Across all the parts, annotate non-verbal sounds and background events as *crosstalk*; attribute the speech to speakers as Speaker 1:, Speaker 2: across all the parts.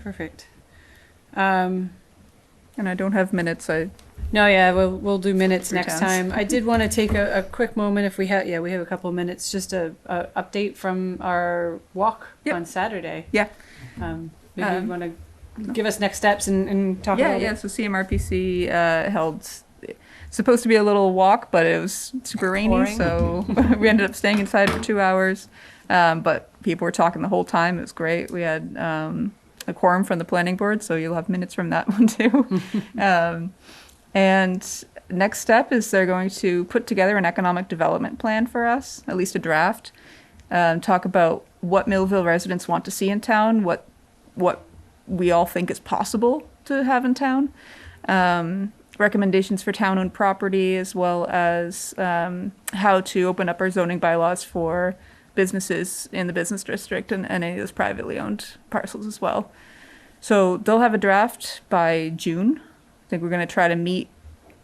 Speaker 1: perfect. Um,
Speaker 2: And I don't have minutes, I,
Speaker 1: no, yeah, we'll, we'll do minutes
Speaker 2: Three
Speaker 1: next
Speaker 2: times.
Speaker 1: time. I did want to take a, a quick moment if we have, yeah, we have a couple of minutes, just a, a update from our walk
Speaker 2: Yep.
Speaker 1: on Saturday.
Speaker 2: Yeah.
Speaker 1: Um, maybe
Speaker 2: Um,
Speaker 1: you want to give us next steps and, and talk
Speaker 2: yeah,
Speaker 1: about
Speaker 2: yeah,
Speaker 1: it.
Speaker 2: so CMRPC uh, held, supposed to be a little walk, but it was super rainy,
Speaker 1: Pouring.
Speaker 2: so *laughs* we ended up staying inside for two hours. Um, But people were talking the whole time, it was great. We had um, a quorum from the planning board, so you'll have minutes from that *laughs*
Speaker 1: *laughs*
Speaker 2: one too. Um, And next step is they're going to put together an economic development plan for us, at least a draft. Um, talk about what Millville residents want to see in town, what what we all think is possible to have in town. Um, recommendations for town-owned property, as well as um, how to open up our zoning bylaws for businesses in the business district and, and any of those privately owned parcels as well. So they'll have a draft by June. I think we're going to try to meet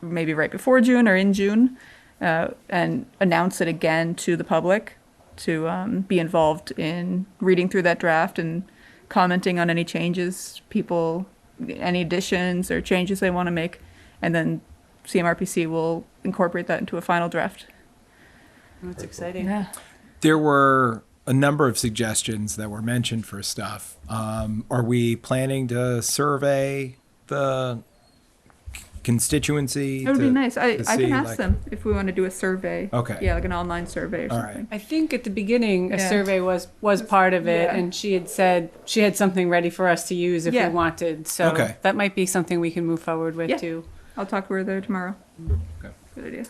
Speaker 2: maybe right before June or in June uh, and announce it again to the public to um, be involved in reading through that draft and commenting on any changes people, any additions or changes they want to make. And then CMRPC will incorporate that into a final draft.
Speaker 1: Oh, That's exciting.
Speaker 2: Yeah.
Speaker 3: there were a number of suggestions that were mentioned for stuff. Um, are we planning to survey the constituency?
Speaker 2: That would be
Speaker 3: to-
Speaker 2: nice. I,
Speaker 3: to
Speaker 2: I can
Speaker 3: see,
Speaker 2: ask
Speaker 3: like-
Speaker 2: them if we want to do a survey.
Speaker 3: Okay.
Speaker 2: Yeah, like an online survey or
Speaker 3: All
Speaker 2: something.
Speaker 1: I think at the beginning, a
Speaker 2: Yeah.
Speaker 1: survey was, was part of it,
Speaker 2: Yeah.
Speaker 1: and she had said she had something ready for us to use if
Speaker 2: Yeah.
Speaker 1: we wanted. So
Speaker 3: Okay.
Speaker 1: that might be something we can move forward with
Speaker 2: Yeah.
Speaker 1: too.
Speaker 2: I'll talk to her there tomorrow.
Speaker 3: Okay.
Speaker 2: Good idea.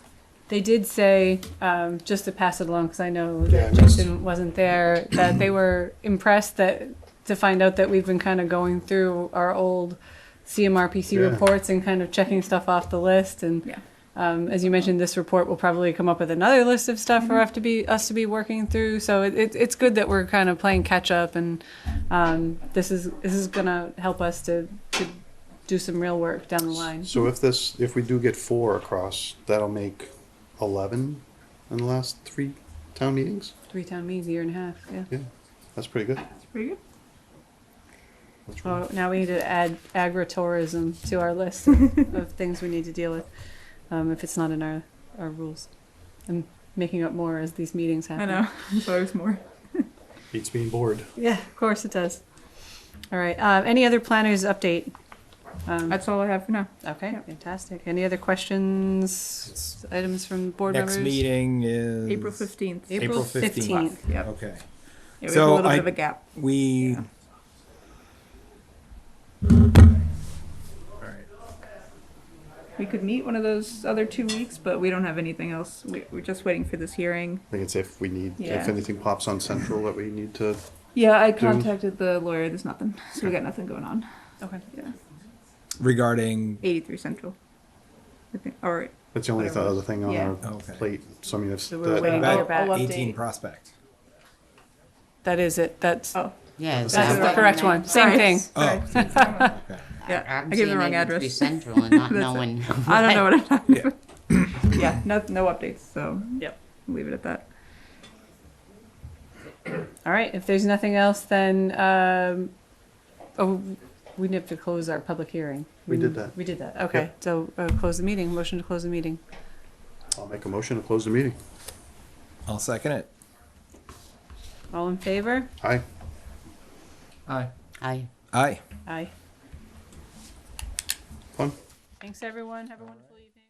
Speaker 1: They did say, um, just to pass it along, because I know
Speaker 4: Yeah,
Speaker 1: that
Speaker 4: just-
Speaker 1: Justin wasn't there, that they were impressed that to find out that we've been kind of going through our old CMRPC
Speaker 4: Yeah.
Speaker 1: reports and kind of checking stuff off the list. And
Speaker 2: Yeah.
Speaker 1: um, as you mentioned, this report will probably come up with another list of stuff for us to be us to be working through. So it, it, it's good that we're kind of playing catch up, and um, this is this is gonna help us to, to do some real work down the line.
Speaker 4: So if this, if we do get four across, that'll make eleven in the last three town meetings.
Speaker 1: Three town meetings, a year and a half. Yeah.
Speaker 4: Yeah, that's pretty good.
Speaker 2: That's pretty good.
Speaker 4: That's really-
Speaker 1: Oh, now we need to add agritourism to our list of of things we need to deal with, um, if it's not in our, our rules. I'm making up more as these meetings
Speaker 2: I
Speaker 1: happen.
Speaker 2: know. *laughs* There's always more.
Speaker 4: Beats being bored.
Speaker 1: Yeah, of course it does. All right, uh, any other planners update? Um,
Speaker 2: That's all I have for now.
Speaker 1: okay, fantastic. Any other questions, items from board
Speaker 3: Next
Speaker 1: members?
Speaker 3: meeting is
Speaker 2: April 15th.
Speaker 1: April
Speaker 3: April 15th.
Speaker 2: Yep.
Speaker 3: Okay.
Speaker 2: Yeah, we have a
Speaker 3: So
Speaker 2: little
Speaker 3: I-
Speaker 2: bit of a gap.
Speaker 3: We.
Speaker 2: Yeah.
Speaker 3: All right.
Speaker 2: We could meet one of those other two weeks, but we don't have anything else. We, we're just waiting for this hearing.
Speaker 4: I think it's if we need,
Speaker 2: Yeah.
Speaker 4: if anything pops on central that we need to,
Speaker 2: Yeah, I
Speaker 4: Do-
Speaker 2: contacted the lawyer. There's nothing. So we got nothing going on.
Speaker 1: Okay,
Speaker 2: Yeah.
Speaker 3: Regarding
Speaker 2: 83 Central. I think. All right.
Speaker 4: that's the only th- other thing on
Speaker 2: Yeah.
Speaker 4: our
Speaker 3: Okay.
Speaker 4: plate. So I mean, if
Speaker 1: So we're waiting to
Speaker 4: that,
Speaker 3: I'll-
Speaker 1: hear back.
Speaker 5: I'll-
Speaker 3: eighteen
Speaker 5: Update.
Speaker 3: prospect.
Speaker 1: That is it, that's,
Speaker 2: Oh,
Speaker 5: Yeah,
Speaker 4: That's
Speaker 1: that's
Speaker 4: the
Speaker 1: the
Speaker 4: right
Speaker 1: correct one, same
Speaker 2: Sorry.
Speaker 1: thing.
Speaker 3: Oh, *laughs*
Speaker 2: sorry.
Speaker 3: okay.
Speaker 2: yeah,
Speaker 5: I'm
Speaker 2: I gave the
Speaker 5: seeing
Speaker 2: wrong
Speaker 5: it would be
Speaker 2: address. *laughs*
Speaker 5: Central and not
Speaker 2: That's it.
Speaker 5: knowing.
Speaker 2: I don't know what I'm talking
Speaker 3: Yeah.
Speaker 2: about. Yeah, no, no updates. So
Speaker 1: Yep.
Speaker 2: leave it at that.
Speaker 1: All right, if there's nothing else, then, um, oh, we need to close our public hearing.
Speaker 4: We did that.
Speaker 1: We did that, okay.
Speaker 4: Yep.
Speaker 1: So, uh, close the meeting, motion to close the meeting.
Speaker 4: I'll make a motion to close the meeting.
Speaker 3: I'll second it.
Speaker 1: All in favor?
Speaker 4: Aye.
Speaker 3: Aye.
Speaker 5: I.
Speaker 3: Aye.
Speaker 1: Aye.
Speaker 4: Fun.
Speaker 1: Thanks, everyone. Have a wonderful evening.